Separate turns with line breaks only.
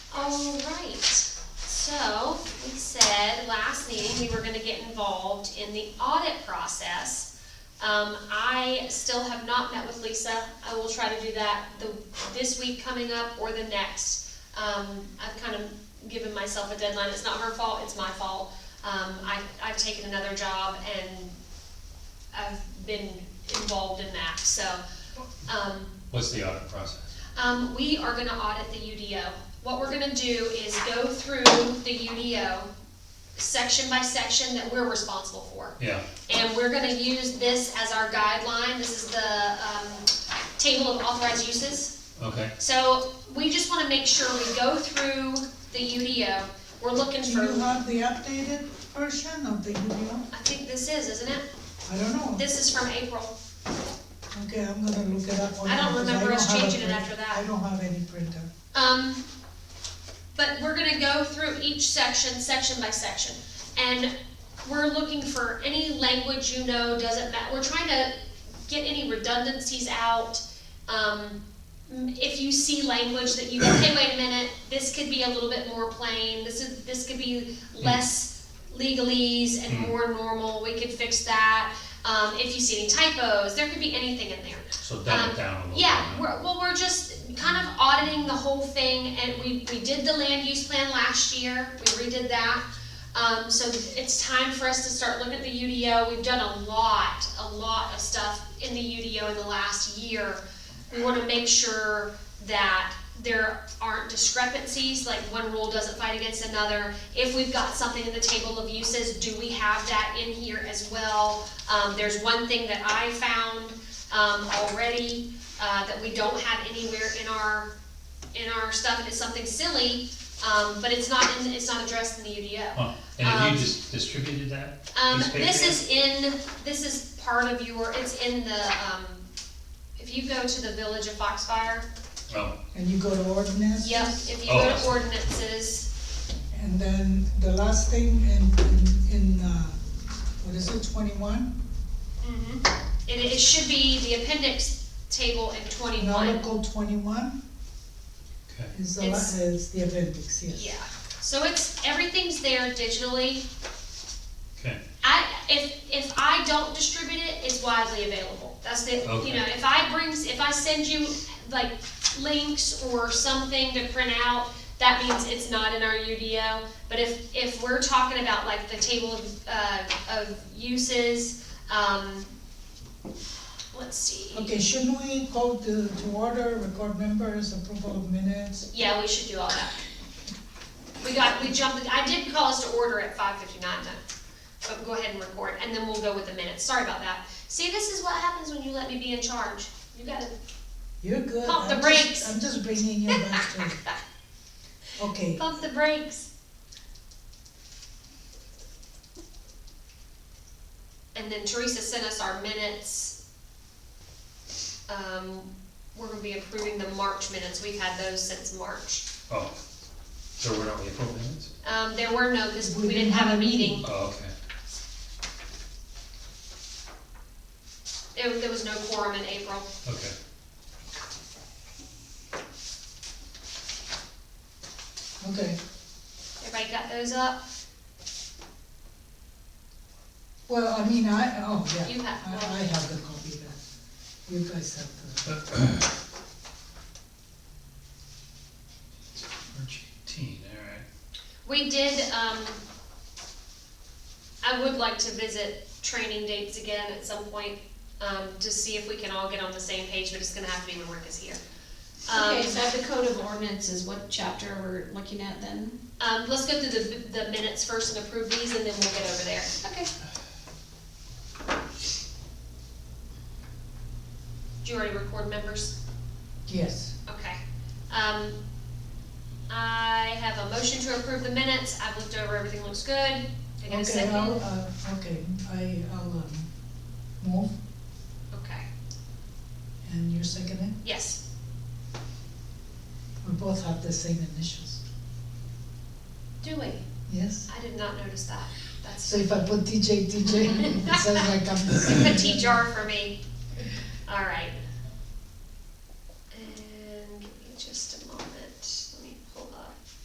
said last meeting, we were gonna get involved in the audit process. Um, I still have not met with Lisa. I will try to do that the, this week coming up or the next. Um, I've kind of given myself a deadline. It's not her fault, it's my fault. Um, I, I've taken another job and I've been involved in that, so, um,
What's the audit process?
um, we are gonna audit the UDO. What we're gonna do is go through the UDO section by section that we're responsible for.
Yeah,
And we're gonna use this as our guideline, this is the, um, table of authorized uses.
okay,
So, we just wanna make sure we go through the UDO, we're looking
Do you
for,
have the updated version of the UDO?
I think this is, isn't it?
I don't know.
This is from April.
Okay, I'm gonna look it up. on
I don't
because
remember
don't
us
have a
changing it
print-
after that.
I don't have any printer.
Um, but we're gonna go through each section, section by section, and we're looking for any language you know doesn't matter. We're trying to get any redundancies out. Um, m- if you see language that you go, hey, wait a minute, this could be a little bit more plain, this is, this could be less legalese and
Mm.
more normal, we could fix that. Um, if you see any typos, there could be anything in there.
so dumb
Um,
it down a little bit.
Yeah, we're, well, we're just kind of auditing the whole thing, and we, we did the land use plan last year, we redid that. Um, so it's time for us to start looking at the UDO, we've done a lot, a lot of stuff in the UDO in the last year. We wanna make sure that there aren't discrepancies, like one rule doesn't fight against another. If we've got something in the table of uses, do we have that in here as well? Um, there's one thing that I found, um, already, uh, that we don't have anywhere in our, in our stuff, and it's something silly, um, but it's not in, it's not addressed in the UDO.
Huh. And have
um,
you just distributed that?
Um,
These
this is
papers?
in, this is part of your, it's in the, um, if you go to the Village of Foxfire,
Oh,
And you go to ordinance?
yep, if you
Oh,
go
I see.
to ordinances,
And then the last thing in, in, in, uh, what is it, twenty-one?
it, Mm-hmm. it should be the appendix table in twenty-one.
Article twenty-one
okay,
is the, la-
It's-
is the appendix, yes.
Yeah, so it's, everything's there digitally.
okay,
I, if, if I don't distribute it, it's widely available. That's the, you
Okay.
know, if I brings, if I send you like links or something to print out, that means it's not in our UDO. But if, if we're talking about like the table of, uh, of uses, um, let's see.
Okay, shouldn't we call to, to order, record members, approval of minutes?
Yeah, we should do all that. We got, we jumped, I did call us to order at five fifty-nine though, but go ahead and record, and then we'll go with the minutes, sorry about that. See, this is what happens when you let me be in charge, you gotta,
You're good.
Pump the
I'm just-
brakes.
I'm just bringing you back to, okay.
pump the brakes. And then Teresa sent us our minutes. Um, we're gonna be approving the March minutes, we've had those since March.
oh, so we're not April minutes?
Um, there were no, cause we didn't have a meeting.
Oh, okay,
It, there was no quorum in April.
okay,
Okay,
Everybody got those up?
well, I mean, I, oh, yeah,
You have
I,
one.
I have the copy then, you guys have the,
March eighteen, all right.
We did, um, I would like to visit training dates again at some point, um, to see if we can all get on the same page, but it's gonna have to be when work is here.
Okay,
Um,
so the code of ordinances, what chapter we're looking at then?
um, let's go through the, the minutes first and approve these, and then we'll get over there.
Okay.
Do you already record members?
yes.
Okay. Um, I have a motion to approve the minutes. I've looked over, everything looks good. Can I get a
Okay,
second?
I'll, uh, okay, I, I'll, um, move,
Okay,
and you're seconding,
yes.
we both have the same initials,
Do we?
yes?
I did not notice that. That's
So if I put DJ, DJ, it sounds like I'm the
a
same.
tea jar for me. All right,